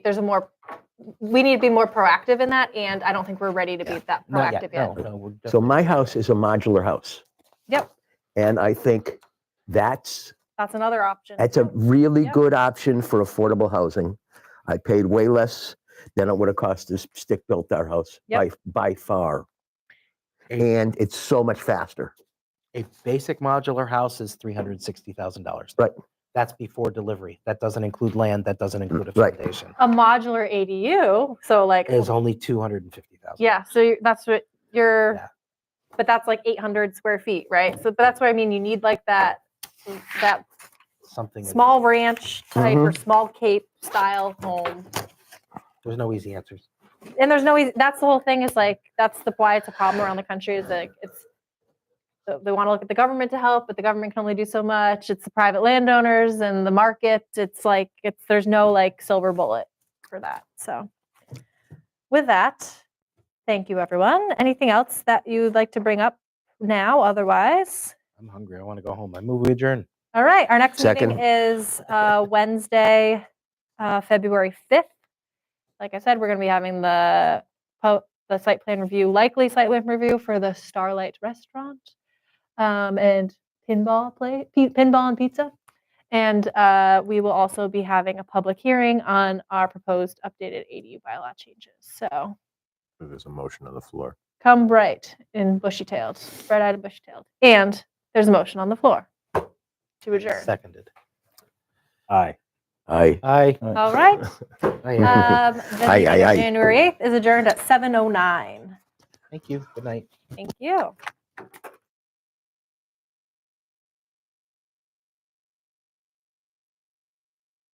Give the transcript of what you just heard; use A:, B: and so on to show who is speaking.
A: there's a more we need to be more proactive in that and i don't think we're ready to be that
B: Not
A: proactive
B: yet. No, no, we're
C: So
B: definitely-
C: my house is a modular house.
A: Yep.
C: And I think that's,
A: that's another option
C: that's a really
A: Yep.
C: good option for affordable housing. I paid way less than it would have cost to stick built our house by,
A: Yep.
C: by far.
B: And-
C: And it's so much faster.
B: a basic modular house is three hundred sixty thousand dollars.
C: Right.
B: That's before delivery. That doesn't include land. That doesn't include a
C: right.
B: foundation.
A: a modular adu so like
B: It's only two hundred and fifty thousand.
A: yeah so you- that's what you're
B: Yeah.
A: but that's like 800 square feet right so but that's what i mean you need like that that
B: Something. that-
A: small ranch type or
C: Mhm.
B: Mm-hmm.
A: small cape style home
B: There's no easy answers.
A: and there's no easy, that's the whole thing is like that's the why it's a problem around the country is like it's so they want to look at the government to help but the government can only do so much it's the private landowners and the market it's like it's there's no like silver bullet for that so with that thank you everyone anything else that you'd like to bring up now otherwise
B: I'm hungry. I want to go home. I move we adjourn.
A: all right, our next meeting
C: Second.
A: is uh, Wednesday, uh, February 5th. Like I said, we're going to be having the po- the site plan review, likely site plan review for the Starlight Restaurant um, and pinball play, pi- pinball and pizza. And uh, we will also be having a public hearing on our proposed updated ADU bylaw changes. So
C: There's a motion on the floor.
A: come bright and bushy-tailed, bright-eyed and bushy-tailed. And there's a motion on the floor to adjourn.
B: Seconded. Aye.
C: Aye.
B: Aye.
A: All right.
B: Aye.
A: Um, the
C: Aye,
A: meeting
C: aye,
A: of
C: aye.
A: January 8th is adjourned at 7:09.
B: Thank you. Good night.
A: Thank you.